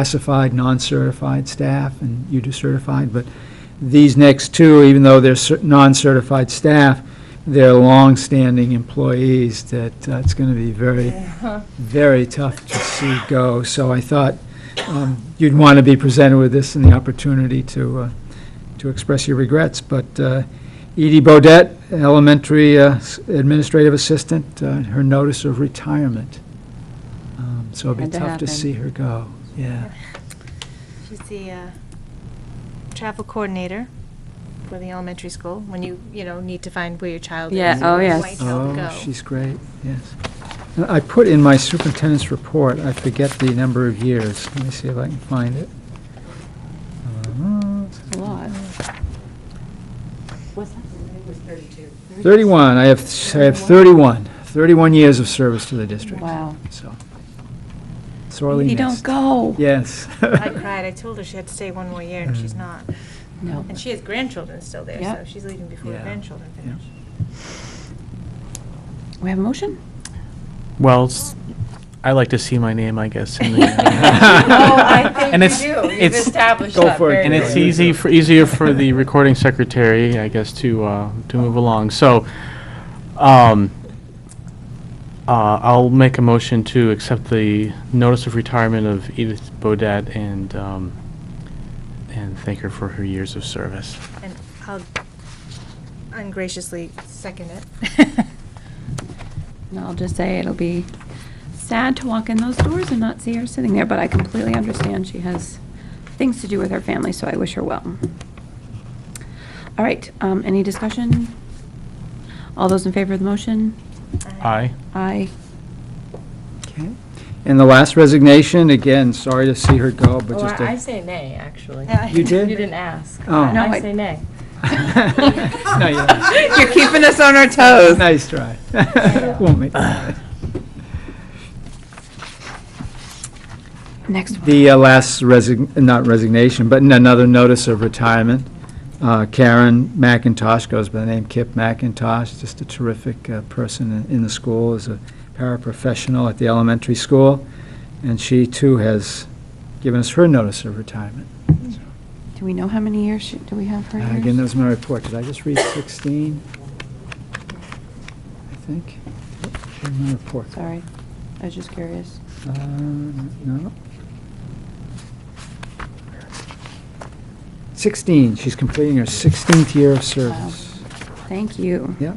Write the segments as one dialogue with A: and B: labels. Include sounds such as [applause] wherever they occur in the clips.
A: classified, non-certified staff, and you do certified, but these next two, even though they're cer- non-certified staff, they're long-standing employees that uh, it's going to be very, very tough to see go. So I thought um, you'd want to be presented with this and the opportunity to, uh, to express your regrets. But uh, Edie Bodett, elementary uh, s- administrative assistant, uh, her notice of retirement. Um, So it'd be
B: Had to
A: tough to
B: happen.
A: see her go, yeah.
C: She's the uh, travel coordinator for the elementary school, when you, you know, need to find where your child is.
B: Yeah,
C: or
B: oh,
C: where
B: yes.
C: your child
A: Oh,
C: go.
A: she's great, yes. And I put in my superintendent's report, I forget the number of years. Let me see if I can find it.
B: A lot.
A: 31, I have, I have 31, 31 years of service to the district.
B: Wow.
A: So sorely
B: You
A: missed.
B: don't go.
A: Yes.
C: I cried, I told her she had to stay one more year, and
A: Mm.
C: she's not.
B: No.
C: And she has grandchildren still there, so
B: Yep.
C: she's leaving before the
A: Yeah.
C: grandchildren
A: Yeah.
C: finish.
B: We have a motion?
D: Well, s- I like to see my name, I guess,
C: [laughs]
D: in the,
C: Oh,
D: And it's- it's-
E: established
A: Go for it,
D: and it's easy, for easier for the recording secretary, I guess, to, uh, to move along. So, um, uh, I'll make a motion to accept the notice of retirement of Edith Bodett and, um, and thank her for her years of service.
C: And I'll ungraciously second it.
B: And I'll just say it'll be sad to walk in those doors and not see her sitting there, but I completely understand she has things to do with her family, so I wish her well. All right, um, any discussion? All those in favor of the motion?
D: Aye.
B: Aye.
A: [laughs] Okay. And the last resignation, again, sorry to see her go, but
E: Or
A: just a...
E: I say nay, actually.
A: You did?
E: You didn't ask.
A: Oh.
B: No,
E: I
B: I-
E: say nay.
A: [laughs] No, you don't.
B: [laughs] You're keeping us on our toes.
A: Nice try. [laughs] Won't make it.
B: Next one.
A: The uh, last resign, not resignation, but n- another notice of retirement. Uh, Karen McIntosh goes by the name Kip McIntosh, just a terrific uh, person in in the school, is a paraprofessional at the elementary school, and she too has given us her notice of retirement.
B: Do we know how many years, she- do we have her
A: Uh,
B: years?
A: Again, that was my report. Did I just read 16? I think. Here's my report.
B: Sorry, I was just curious.
A: Uh, No. 16, she's completing her 16th year of service.
B: Thank you.
A: Yep.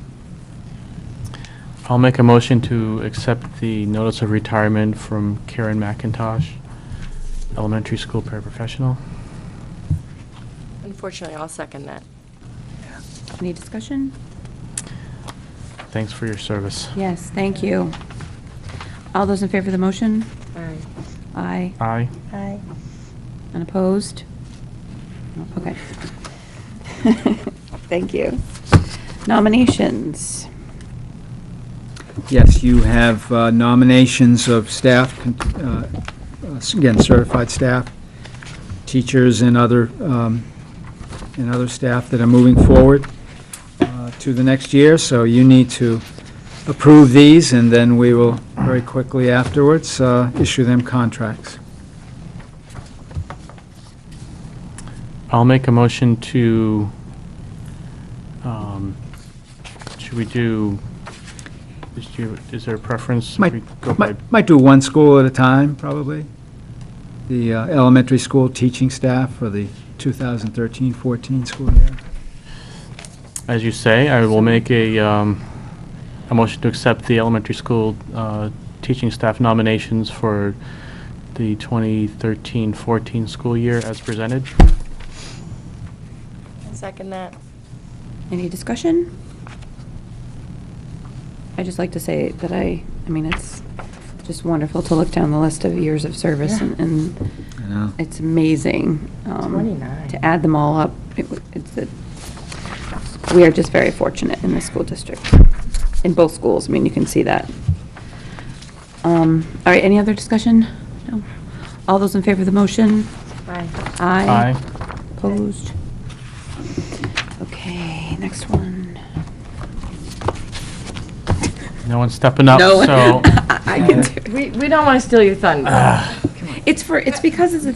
D: I'll make a motion to accept the notice of retirement from Karen McIntosh, elementary school paraprofessional.
E: Unfortunately, I'll second that.
B: Any discussion?
D: Thanks for your service.
B: Yes, thank you. All those in favor of the motion?
E: Aye.
B: Aye.
D: Aye.
C: Aye.
B: Unopposed? No, Okay. [laughs] Thank you. Nominations.
A: Yes, you have uh, nominations of staff, con- uh, uh, again, certified staff, teachers and other, um, and other staff that are moving forward uh, to the next year, so you need to approve these, and then we will very quickly afterwards uh, issue them contracts.
D: I'll make a motion to, um, should we do, is do- is there a preference? if
A: Might-
D: we go by-
A: Might might do one school at a time, probably. The uh, elementary school teaching staff for the 2013-14 school year.
D: As you say, I will make a, um, a motion to accept the elementary school uh, teaching staff nominations for the 2013-14 school year as presented.
E: I'll second that.
B: Any discussion? i just like to say that I, I mean, it's just wonderful to look down the list of years of service and- and
A: I know.
B: it's amazing. um,
E: 29.
B: To add them all up, It w- it's, a- we are just very fortunate in this school district, in both schools, I mean, you can see that. Um, All right, any other discussion? No. All those in favor of the motion?
E: Aye.
B: Aye.
D: Aye.
B: Opposed? Okay, next one.
D: No one's stepping up, so.
B: I I can do it. [laughs]
A: Ah.
E: We, we don't want to steal your thunder.
B: It's for, it's because it's a